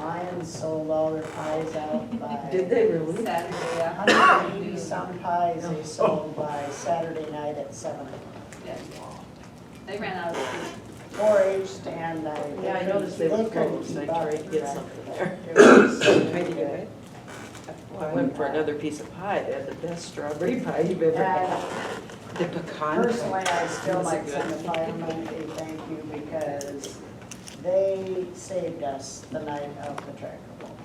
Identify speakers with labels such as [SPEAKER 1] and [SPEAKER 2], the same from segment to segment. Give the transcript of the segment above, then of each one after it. [SPEAKER 1] Americans sold all their pies out by.
[SPEAKER 2] Did they really?
[SPEAKER 3] Saturday afternoon.
[SPEAKER 1] 180 some pies they sold by Saturday night at seven.
[SPEAKER 3] Yeah. They ran out of food.
[SPEAKER 1] Four H stand, I.
[SPEAKER 2] Yeah, I noticed they were trying to try to get something there.
[SPEAKER 1] It was so
[SPEAKER 2] I did
[SPEAKER 1] good.
[SPEAKER 2] it. Well, I went for another piece of pie, they had the best strawberry pie you've ever had.
[SPEAKER 1] And
[SPEAKER 2] The pecan.
[SPEAKER 1] Personally, I still
[SPEAKER 2] Was it
[SPEAKER 1] like send the
[SPEAKER 2] good?
[SPEAKER 1] firemen a thank you because they saved us the night of the tractor pull.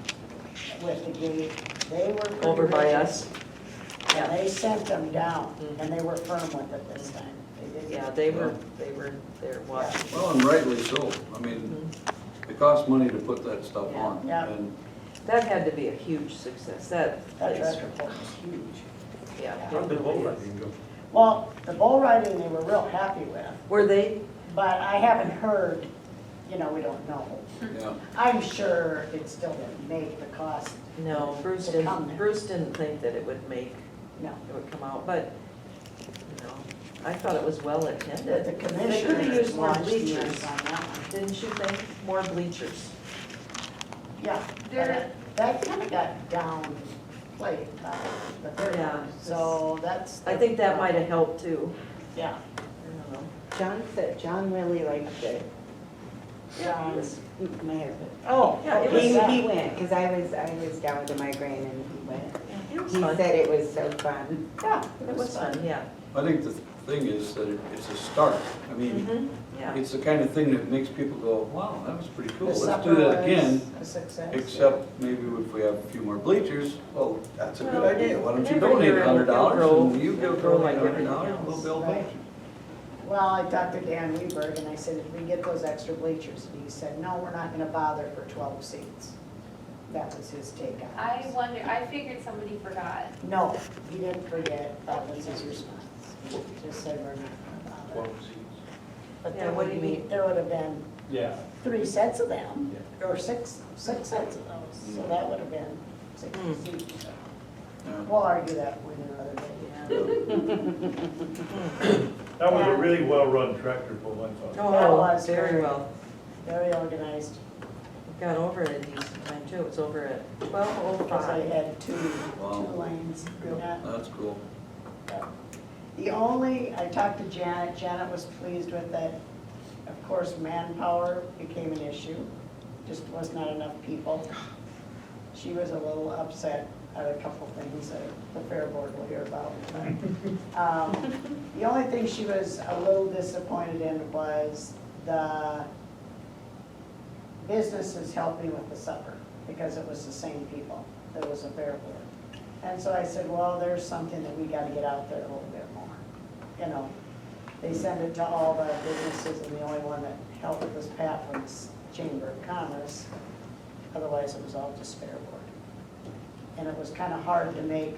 [SPEAKER 1] With the gate, they were. pretty
[SPEAKER 2] Over by
[SPEAKER 1] rigid,
[SPEAKER 2] us,
[SPEAKER 1] And they sent them down
[SPEAKER 2] Mhm.
[SPEAKER 1] and they were firm with it this time. They didn't-
[SPEAKER 2] yeah, they were, they were there watching. Mm-hmm.
[SPEAKER 4] Well, and rightly so. I mean, it costs money to put that stuff on.
[SPEAKER 1] Yeah.
[SPEAKER 4] And
[SPEAKER 2] That had to be a huge success, that
[SPEAKER 1] That
[SPEAKER 2] place,
[SPEAKER 1] tractor pull was huge.
[SPEAKER 2] yeah. it
[SPEAKER 5] I've been home, I
[SPEAKER 2] really is.
[SPEAKER 5] didn't go.
[SPEAKER 1] Well, the bull riding, they were real happy with,
[SPEAKER 2] Were they,
[SPEAKER 1] but I haven't heard, you know, we don't know.
[SPEAKER 4] Yeah,
[SPEAKER 1] I'm sure it still didn't make the cost,
[SPEAKER 2] no, Bruce
[SPEAKER 1] They come
[SPEAKER 2] didn't,
[SPEAKER 1] there.
[SPEAKER 2] Bruce didn't think that it would make,
[SPEAKER 1] no.
[SPEAKER 2] it would come out, but, you know, I thought it was well
[SPEAKER 1] But
[SPEAKER 2] attended.
[SPEAKER 1] the
[SPEAKER 2] They could have
[SPEAKER 1] commissioners
[SPEAKER 2] used more
[SPEAKER 1] watched the
[SPEAKER 2] bleachers,
[SPEAKER 1] ends on that one.
[SPEAKER 2] didn't you think, more bleachers?
[SPEAKER 1] Yeah,
[SPEAKER 3] There-
[SPEAKER 1] but that kind of got downplayed, uh, the third
[SPEAKER 2] Yeah.
[SPEAKER 1] one, so that's.
[SPEAKER 2] I think that might have helped too.
[SPEAKER 1] Yeah,
[SPEAKER 2] I don't know.
[SPEAKER 6] John said, John really liked it,
[SPEAKER 1] John,
[SPEAKER 6] mayor.
[SPEAKER 1] Um, oh,
[SPEAKER 2] Yeah, it
[SPEAKER 6] He,
[SPEAKER 2] was-
[SPEAKER 6] he went, because I was, I was down with a migraine and he went.
[SPEAKER 2] It was
[SPEAKER 6] He
[SPEAKER 2] fun.
[SPEAKER 6] said it was so fun.
[SPEAKER 1] Yeah,
[SPEAKER 2] It was fun, yeah.
[SPEAKER 4] I think the thing is that it- it's a start. I mean,
[SPEAKER 2] Mhm, Yeah.
[SPEAKER 4] it's the kind of thing that makes people go, wow, that was pretty cool.
[SPEAKER 1] The
[SPEAKER 4] Let's
[SPEAKER 1] supper
[SPEAKER 4] do that
[SPEAKER 1] was
[SPEAKER 4] again,
[SPEAKER 1] a success.
[SPEAKER 4] except maybe if we have a few more bleachers, well, that's a
[SPEAKER 2] Well,
[SPEAKER 4] good idea. Why don't you
[SPEAKER 2] never
[SPEAKER 4] donate
[SPEAKER 2] grow-
[SPEAKER 4] a hundred dollars and
[SPEAKER 2] grow-
[SPEAKER 4] you go
[SPEAKER 2] grow like
[SPEAKER 4] donate a hundred dollars
[SPEAKER 2] everything
[SPEAKER 4] and we'll build
[SPEAKER 1] else,
[SPEAKER 4] bleachers.
[SPEAKER 1] Well, I talked to Dan Weberg and I said, if we get those extra bleachers, and he said, no, we're not gonna bother for twelve seats. That was his take on
[SPEAKER 3] I
[SPEAKER 1] it.
[SPEAKER 3] wonder, I figured somebody forgot.
[SPEAKER 1] No, he didn't forget, that was his response. He Just said, we're not gonna bother. But
[SPEAKER 2] Yeah,
[SPEAKER 1] there
[SPEAKER 2] what
[SPEAKER 1] would
[SPEAKER 2] do you
[SPEAKER 1] be,
[SPEAKER 2] mean?
[SPEAKER 1] there would have been
[SPEAKER 5] Yeah.
[SPEAKER 1] three sets of them, or six, six sets of those, so that would have been six
[SPEAKER 2] Mm.
[SPEAKER 1] seats.
[SPEAKER 4] Yeah.
[SPEAKER 1] We'll argue that with another day.
[SPEAKER 5] That was a really well-run tractor pull, I thought.
[SPEAKER 2] Oh,
[SPEAKER 1] was
[SPEAKER 2] very
[SPEAKER 1] very-
[SPEAKER 2] well.
[SPEAKER 1] Very organized,
[SPEAKER 2] We Got over it in decent time too. It was over at twelve oh
[SPEAKER 1] because I
[SPEAKER 2] five.
[SPEAKER 1] had two,
[SPEAKER 4] Wow.
[SPEAKER 1] two lanes, not
[SPEAKER 4] That's cool.
[SPEAKER 1] The only, I talked to Janet, Janet was pleased with that, of course, manpower became an issue, just was not enough people. She was a little upset at a couple things that the fair board will hear about. but, um, The only thing she was a little disappointed in was the businesses helped me with the supper, because it was the same people, that was a fair board. And so I said, well, there's something that we gotta get out there a little bit more, you know. They send it to all the businesses, and the only one that helped was Pat from the Chamber of Commerce. Otherwise, it was all just fair board. And it was kinda hard to make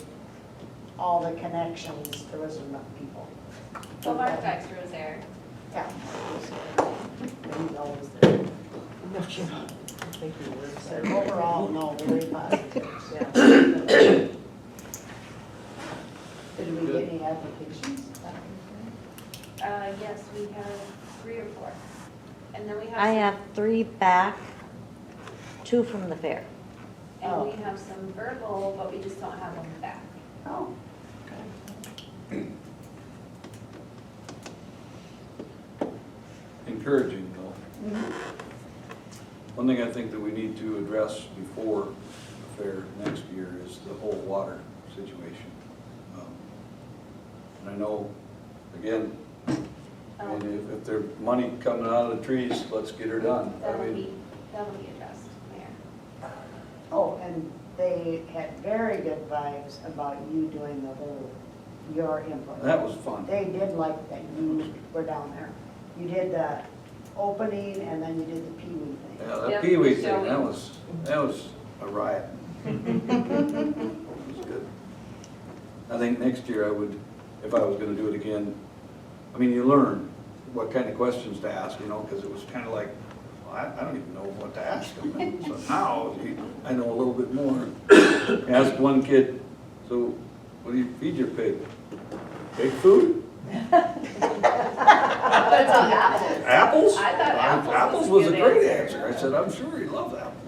[SPEAKER 1] all the connections, there wasn't enough people.
[SPEAKER 3] Well, Mark Dexter was there.
[SPEAKER 1] Yeah. He's always there.
[SPEAKER 2] No, she- I think you were
[SPEAKER 1] So
[SPEAKER 2] there.
[SPEAKER 1] overall, no, very positive.
[SPEAKER 2] Yeah.
[SPEAKER 1] Did we get any applications?
[SPEAKER 3] Uh, yes, we have three or four. And then we have.
[SPEAKER 7] I
[SPEAKER 3] some-
[SPEAKER 7] have three back, two from the fair.
[SPEAKER 3] And
[SPEAKER 7] oh.
[SPEAKER 3] we have some verbal, but we just don't have them back.
[SPEAKER 1] Oh.
[SPEAKER 4] Encouraging though.
[SPEAKER 3] Mm-hmm.
[SPEAKER 4] One thing I think that we need to address before the fair next year is the whole water situation. Um, And I know, again, I mean,
[SPEAKER 3] Um,
[SPEAKER 4] if, if there's money coming out of the trees, let's get her done. I
[SPEAKER 3] That'll
[SPEAKER 4] mean,
[SPEAKER 3] be, that'll be addressed, Mayor.
[SPEAKER 1] Oh, and they had very good vibes about you doing the whole, your
[SPEAKER 4] that
[SPEAKER 1] input.
[SPEAKER 4] was fun.
[SPEAKER 1] They did like that you were down there. You did the opening and then you did the pee wee thing.
[SPEAKER 4] Yeah, that
[SPEAKER 3] Yep,
[SPEAKER 4] peewee
[SPEAKER 3] shall
[SPEAKER 4] thing,
[SPEAKER 3] we?
[SPEAKER 4] that was, that was a riot. It was good. I think next year I would, if I was gonna do it again, I mean, you learn what kind of questions to ask, you know, because it was kind of like, well, I, I don't even know what to ask them. And So now, you- I know a little bit more. Ask one kid, so what do you feed your pig? Pig food?
[SPEAKER 3] But it's on apples.
[SPEAKER 4] Apples?
[SPEAKER 3] I thought apples was
[SPEAKER 4] Apples was a
[SPEAKER 3] a good
[SPEAKER 4] great
[SPEAKER 3] answer.
[SPEAKER 4] answer. I said, I'm sure he'd love apples.